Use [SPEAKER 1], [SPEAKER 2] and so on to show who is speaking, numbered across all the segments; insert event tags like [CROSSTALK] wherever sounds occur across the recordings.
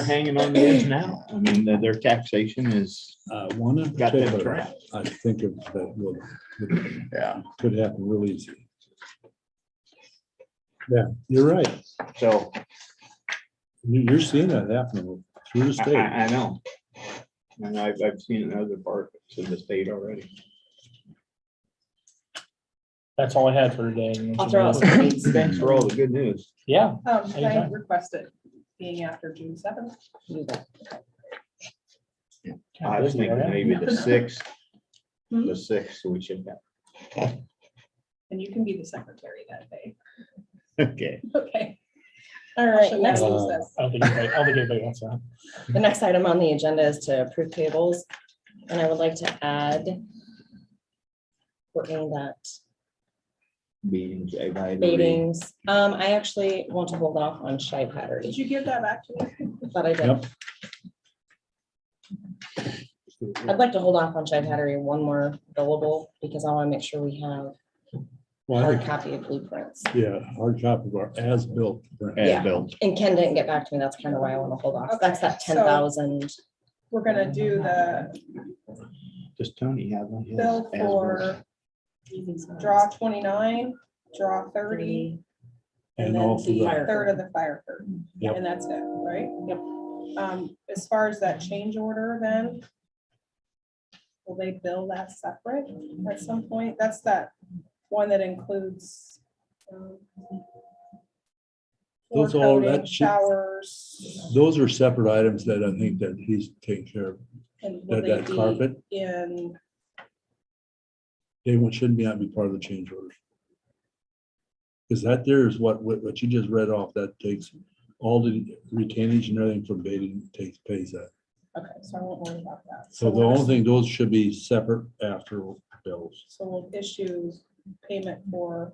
[SPEAKER 1] are hanging on the edge now. I mean, their- their taxation is,
[SPEAKER 2] Uh, one in
[SPEAKER 1] Got that
[SPEAKER 2] particular,
[SPEAKER 1] trapped.
[SPEAKER 2] I think of that will, that
[SPEAKER 1] yeah,
[SPEAKER 2] could happen real easy. Yeah, you're right.
[SPEAKER 1] so
[SPEAKER 2] You- You're seeing that happening through the
[SPEAKER 1] I, I,
[SPEAKER 2] state.
[SPEAKER 1] I know. And I've, I've seen it in other parts of the state already.
[SPEAKER 3] That's all I had for today.
[SPEAKER 4] I'll throw out some dates.
[SPEAKER 1] Thanks for all the good news.
[SPEAKER 3] Yeah,
[SPEAKER 5] Um, can I
[SPEAKER 3] Anytime.
[SPEAKER 5] request it being after June seventh?
[SPEAKER 1] I was thinking maybe [LAUGHS] the sixth, the sixth, we should have.
[SPEAKER 5] And you can be the secretary that day. [LAUGHS]
[SPEAKER 1] Okay.
[SPEAKER 5] Okay.
[SPEAKER 4] All right, next,
[SPEAKER 2] Uh,
[SPEAKER 4] the
[SPEAKER 5] Who's this?
[SPEAKER 3] I don't think anybody, I don't think anybody wants that.
[SPEAKER 4] next item on the agenda is to approve payables, and I would like to add Courtney, that
[SPEAKER 1] Meetings. I by the way.
[SPEAKER 4] meetings, um, I actually want to hold off on Shy Patterson,
[SPEAKER 5] Did you give that back to me?
[SPEAKER 4] but I did.
[SPEAKER 2] Yep.
[SPEAKER 4] I'd like to hold off on Shy Patterson one more billable, because I want to make sure we have
[SPEAKER 2] Well, I
[SPEAKER 4] hard
[SPEAKER 2] think,
[SPEAKER 4] copy of blueprints.
[SPEAKER 2] yeah, hard copy of our as-built.
[SPEAKER 1] Yeah,
[SPEAKER 4] Yeah.
[SPEAKER 1] Bill.
[SPEAKER 4] And Ken didn't get back to me, that's kind of why I want to hold off, that's that
[SPEAKER 5] Okay, so-
[SPEAKER 4] ten thousand,
[SPEAKER 5] We're gonna do the
[SPEAKER 1] Does Tony have one?
[SPEAKER 5] bill
[SPEAKER 1] Yes, as was.
[SPEAKER 5] for draw twenty-nine, draw thirty,
[SPEAKER 4] thirty,
[SPEAKER 2] And
[SPEAKER 4] And then
[SPEAKER 2] also
[SPEAKER 4] the
[SPEAKER 2] the,
[SPEAKER 4] fire-
[SPEAKER 5] third of the fire curtain.
[SPEAKER 2] Yep.
[SPEAKER 5] And that's it, right? Yep. Um, as far as that change order then, will they bill that separate at some point? That's that one that includes um, floor
[SPEAKER 2] Those all-
[SPEAKER 5] coating,
[SPEAKER 2] that should-
[SPEAKER 5] Showers.
[SPEAKER 2] those are separate items that I think that he's taking care of.
[SPEAKER 5] and will
[SPEAKER 2] That,
[SPEAKER 5] they
[SPEAKER 2] that
[SPEAKER 5] be
[SPEAKER 2] carpet,
[SPEAKER 5] In,
[SPEAKER 2] they won't- shouldn't be, on be part of the change order. Because that there is what, what what you just read off, that takes all the retainage and everything from Baden takes, pays that.
[SPEAKER 5] okay, so I won't worry about that.
[SPEAKER 2] So the
[SPEAKER 5] we'll-
[SPEAKER 2] only thing, those should be separate after bills.
[SPEAKER 5] So we'll issue payment for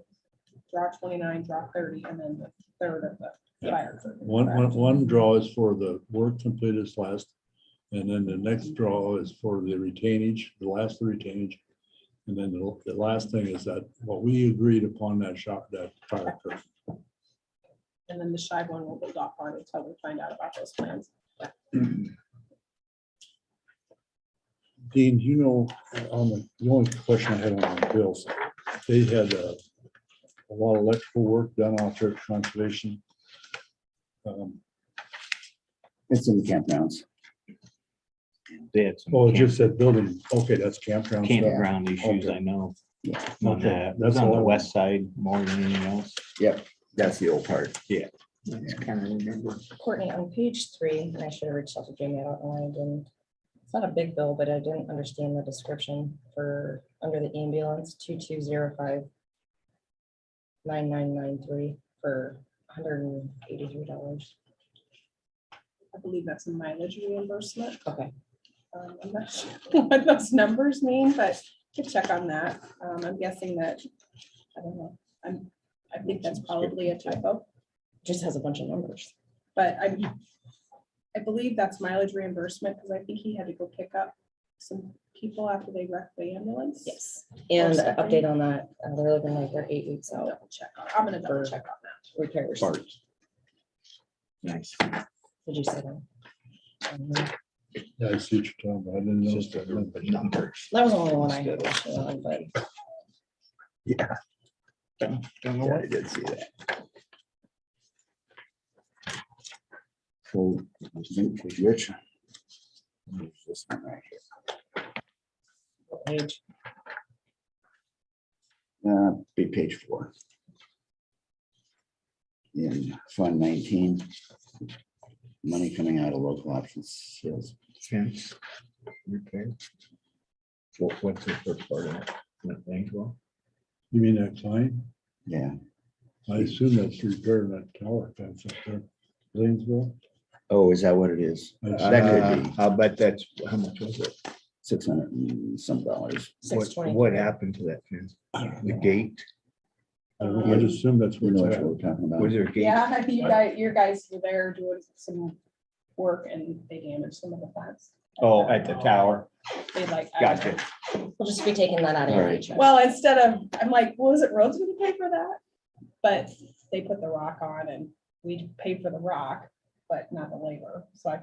[SPEAKER 5] draw twenty-nine, draw thirty, and then the third of the
[SPEAKER 2] Yeah.
[SPEAKER 5] fire. curtain,
[SPEAKER 2] One,
[SPEAKER 5] correct?
[SPEAKER 2] one, one draw is for the work completed last, and then the next draw is for the retainage, the last retainage. And then the, the last thing is that what we agreed upon that shop, that fire truck.
[SPEAKER 5] And then the shy one will hold off on until we find out about those plans.
[SPEAKER 2] Dean, do you know, on the, the only question I had on the bills, they had uh, a lot of electrical work done out there at conservation. Um,
[SPEAKER 6] It's in the campgrounds.
[SPEAKER 1] They had some
[SPEAKER 2] Oh, it
[SPEAKER 1] camp-
[SPEAKER 2] just said building, okay, that's campground stuff.
[SPEAKER 1] campground issues, I know.
[SPEAKER 6] Yeah.
[SPEAKER 1] On
[SPEAKER 2] Okay,
[SPEAKER 1] the,
[SPEAKER 2] that's
[SPEAKER 1] that's on
[SPEAKER 2] all I
[SPEAKER 1] the
[SPEAKER 2] know.
[SPEAKER 1] west side more than anything else.
[SPEAKER 6] That's the old part.
[SPEAKER 1] That's kind of remember.
[SPEAKER 4] Courtney, on page three, and I should have reached out to Jamie, I don't know, why I didn't. It's not a big bill, but I didn't understand the description for, under the ambulance, two two zero five nine nine nine three for hundred and eighty-three dollars.
[SPEAKER 5] I believe that's a mileage reimbursement.
[SPEAKER 4] Okay,
[SPEAKER 5] Um, I'm not sure [LAUGHS] what those numbers mean, but to check on that, um, I'm guessing that, I don't know, I'm, I think that's probably a typo.
[SPEAKER 4] just has a bunch of numbers.
[SPEAKER 5] But I, I believe that's mileage reimbursement, because I think he had to go pick up some people after they wrecked the ambulance.
[SPEAKER 4] Yes. And an
[SPEAKER 5] something.
[SPEAKER 4] update on that, uh, they're looking like they're eight weeks
[SPEAKER 5] I'll
[SPEAKER 4] out
[SPEAKER 5] double check, on- I'm gonna double check on that.
[SPEAKER 4] repairs. Did
[SPEAKER 1] Parts. Nice.
[SPEAKER 4] you say that? Um, That
[SPEAKER 2] Yeah, I see what you're talking about. I didn't
[SPEAKER 1] It's
[SPEAKER 2] know.
[SPEAKER 1] just a group of numbers.
[SPEAKER 4] was the only one I had, actually, on, but
[SPEAKER 1] Don't know
[SPEAKER 6] Yeah,
[SPEAKER 1] what-
[SPEAKER 6] I did see that. So, I think for Rich. there's this one right
[SPEAKER 4] what page,
[SPEAKER 6] here. Uh, Be page four. In Fund nineteen. Money coming out of local options sales.
[SPEAKER 1] Fence. Okay. What, what's the first part of it? Nothing, well,
[SPEAKER 2] You mean that sign?
[SPEAKER 6] Yeah,
[SPEAKER 2] I assume that's repairing that tower fence up there, Lanesville.
[SPEAKER 6] oh, is that what it is?
[SPEAKER 1] That
[SPEAKER 6] That
[SPEAKER 1] could
[SPEAKER 6] could
[SPEAKER 1] be, Uh, I'll bet that's, how much was it?
[SPEAKER 6] Six hundred and some dollars.
[SPEAKER 4] six
[SPEAKER 1] What,
[SPEAKER 4] twenty.
[SPEAKER 1] what happened to that fence? The gate,
[SPEAKER 2] I don't- I'd assume that's
[SPEAKER 6] You
[SPEAKER 2] where
[SPEAKER 6] know
[SPEAKER 2] it's
[SPEAKER 6] what
[SPEAKER 2] at.
[SPEAKER 6] we're talking about?
[SPEAKER 1] was there a gate?
[SPEAKER 5] Yeah, [LAUGHS] you guys, your guys were there doing some work and they damaged some of the plants.
[SPEAKER 1] Oh, at the tower,
[SPEAKER 5] They like. I don't know.
[SPEAKER 1] gotcha.
[SPEAKER 4] We'll just be taking that out of
[SPEAKER 6] All
[SPEAKER 4] your
[SPEAKER 6] right.
[SPEAKER 4] paycheck.
[SPEAKER 5] Well, instead of, I'm like, well, is it roads gonna pay for that? But they put the rock on and we pay for the rock, but not the labor, so I figured